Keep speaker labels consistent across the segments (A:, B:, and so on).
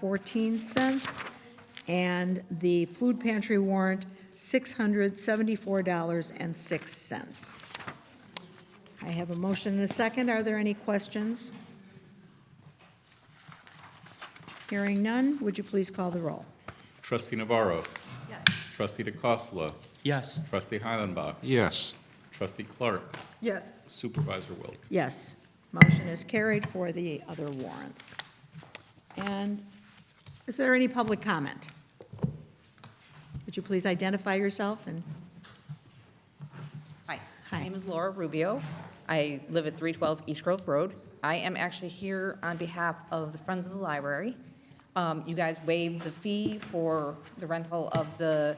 A: $19.14, and the food pantry warrant, $674.06. I have a motion and a second. Are there any questions? Hearing none, would you please call the roll?
B: Trustee Navarro. Yes. Trustee DeCosta.
C: Yes.
B: Trustee Heilenbach.
D: Yes.
B: Trustee Clark.
E: Yes.
B: Supervisor Wilt.
A: Yes, motion is carried for the other warrants. And is there any public comment? Would you please identify yourself and,
F: Hi.
A: Hi.
F: My name is Laura Rubio. I live at 312 East Grove Road. I am actually here on behalf of the Friends of the Library. Um, You guys waived the fee for the rental of the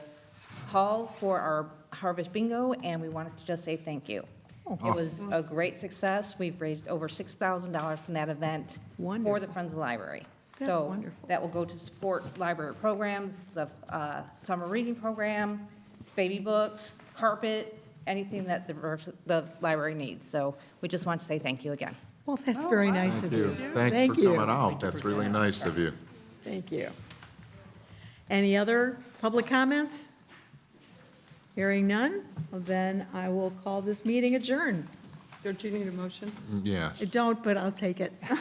F: hall for our Harvest Bingo, and we wanted to just say thank you. It was a great success. We've raised over $6,000 from that event for the
A: Wonderful.
F: Friends of the Library.
A: That's
F: So
A: wonderful.
F: That will go to support library programs, the uh, summer reading program, baby books, carpet, anything that the, vers- the library needs. So we just want to say thank you again.
A: well, that's very nice of
D: Thank you.
A: you.
D: Thanks for coming out. That's really nice of you.
A: Thank you. Any other public comments? Hearing none, well, then I will call this meeting adjourned.
E: Don't you need a motion?
D: Yes.
A: I don't, but I'll take it.
D: Oh,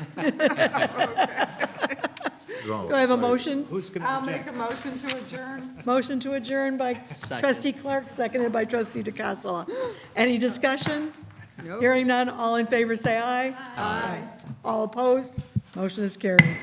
D: Go.
A: Do I have a motion?
E: I'll make a motion to adjourn.
A: Motion to adjourn by trustee Clark, seconded by trustee DeCassola. Any discussion?
E: Nope.
A: Hearing none, all in favor, say aye. Aye. All opposed? Motion is carried.